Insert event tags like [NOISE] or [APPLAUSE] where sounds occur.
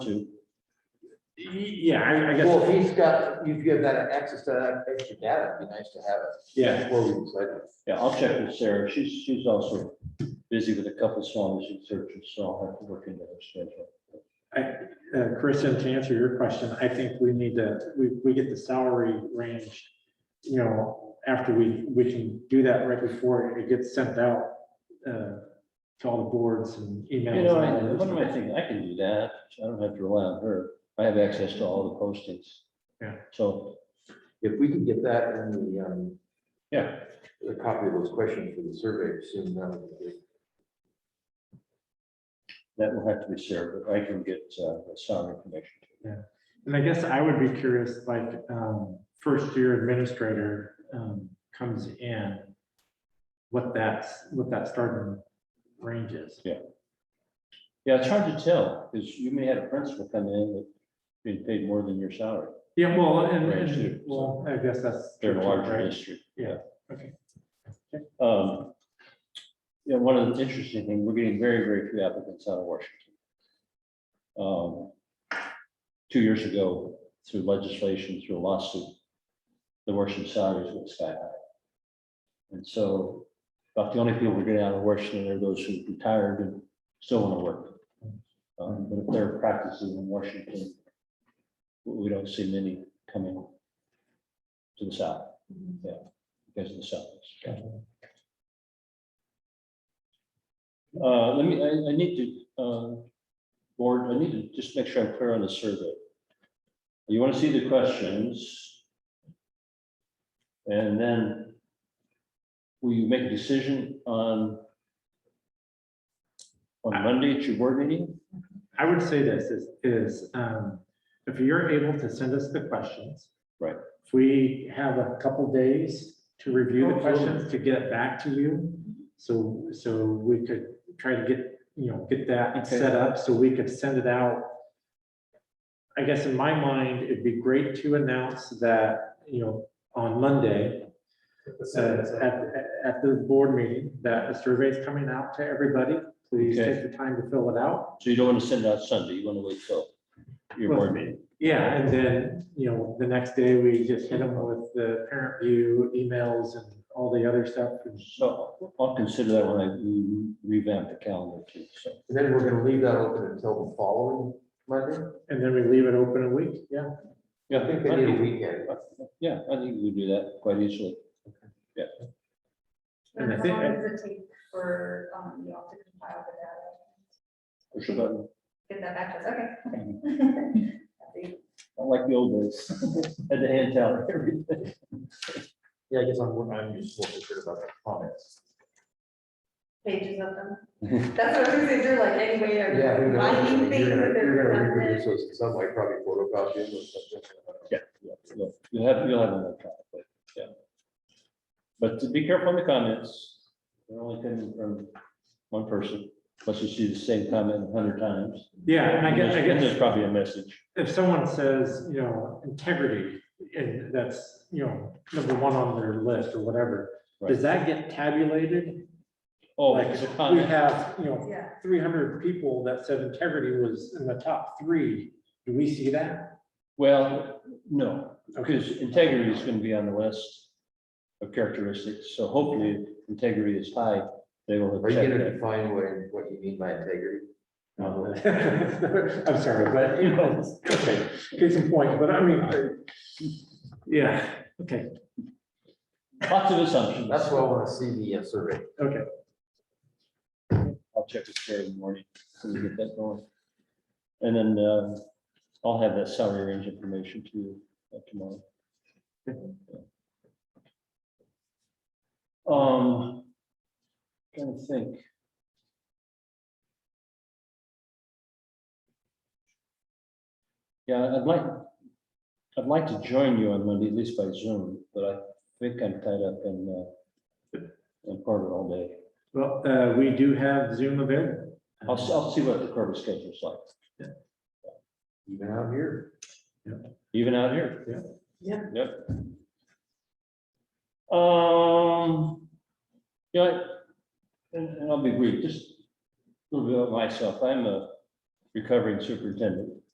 to, Yeah, I, I Well, guess, if he's got, if you have that access to that extra data, it'd be nice to have it. yeah, before we decide. yeah, I'll check with Sarah. She's, she's also busy with a couple songs and searches, so I'll have to work into her schedule. uh, Kristen, to answer your question, I think we need to, we, we get the salary range. You know, after we, we can do that right before it gets sent out, uh, to all the boards and emails. You know, and I- all that what am I stuff. thinking? I can do that. I don't have to rely on her. I have access to all the postings. Yeah. So, If we can get that and the, um, yeah, the copy of those questions for the survey soon, that would be great. that will have to be Sarah, but I can get uh, the salary information. And I guess I would be curious, like, um, first year administrator, um, comes in. What that's, what that starting range is. Yeah, it's hard to tell, because you may have a principal come in that being paid more than your salary. Yeah, well, and, Range and- too. well, I guess that's. They're a larger right? district. Yeah, okay. Um, Yeah, one of the interesting things, we're getting very, very few applicants out of Washington. Um, Two years ago, through legislation, through a lawsuit, the Washington salaries went sky high. And so about the only people we're getting out of Washington are those who retired and still want to work. Um, But if they're practicing in Washington, we we don't see many coming to the south because of the setbacks. Uh, let me, I, I need to, um, board, I need to just make sure I'm clear on the survey. You want to see the questions? And then will you make a decision on on Monday at your board meeting? I would say this is, is, um, if you're able to send us the questions. Right. If we have a couple days to review the Absolutely. questions, to get it back to you, so, so we could try to get, you know, get that Okay. set up, so we could send it out. I guess in my mind, it'd be great to announce that, you know, on Monday, uh, at, at- at the board meeting, that a survey is coming out to everybody. Please Okay. take the time to fill it out. So you don't want to send out Sunday, you want to wait till your board meeting. Yeah, and then, you know, the next day we just hit them with the parent view emails and all the other stuff. and- So I'll consider that when I re- revamp the calendar too, so. And then we're gonna leave that open until the following Monday. And then we leave it open a week, yeah. Yeah, I think they need a weekend. Yeah, I think we do that quite easily. And I How think- long does it take for, um, you all to compile the data? Push a button, Get that back to us, okay. [LAUGHS] That'd be- not like the old days, [LAUGHS] had to hand out [LAUGHS] everything. Yeah, I guess I'm, I'm just more concerned about the comments. Pages [LAUGHS] of them. That's what I was saying, they're like anyway, Yeah, they're who knows? I finding mean, things You're that gonna you're gonna reproduce they're. those in some way, probably photocopy them or something. Yeah, yeah, you'll- you'll have, you'll have an electronic, but, yeah. But to be careful in the comments, they're only coming from one person, unless you see the same comment a hundred times. Yeah, and I guess, I And There's guess probably a message. if someone says, you know, integrity, and that's, you know, number one on their list or whatever, does that get tabulated? Oh, Like, it's a we comment. have, you know, Yeah, three hundred people that said integrity was in the top three. Do we see that? Well, no, because integrity is gonna be on the list of characteristics, so hopefully if integrity is high, they will have Are you checked gonna that. define what, what you mean by integrity? No. I'm sorry, but, [LAUGHS] you know, okay, case in point, but I mean, I- yeah, okay, Lots of assumptions. That's why I wanna see the uh, survey. okay. I'll check with Sarah in the morning, so we get that going. And then uh, I'll have that salary range information to you uh, tomorrow. Um, trying to think. Yeah, I'd like, I'd like to join you on Monday, at least by Zoom, but I think I'm tied up in uh, in Portland all day. Well, uh, we do have Zoom available. I'll, s- I'll see what the current schedule's like, Even out here. even out here. Yeah. Yeah. Yep. Um, yeah, I- and, and I'll be brief, just a little bit about myself. I'm a recovering superintendent.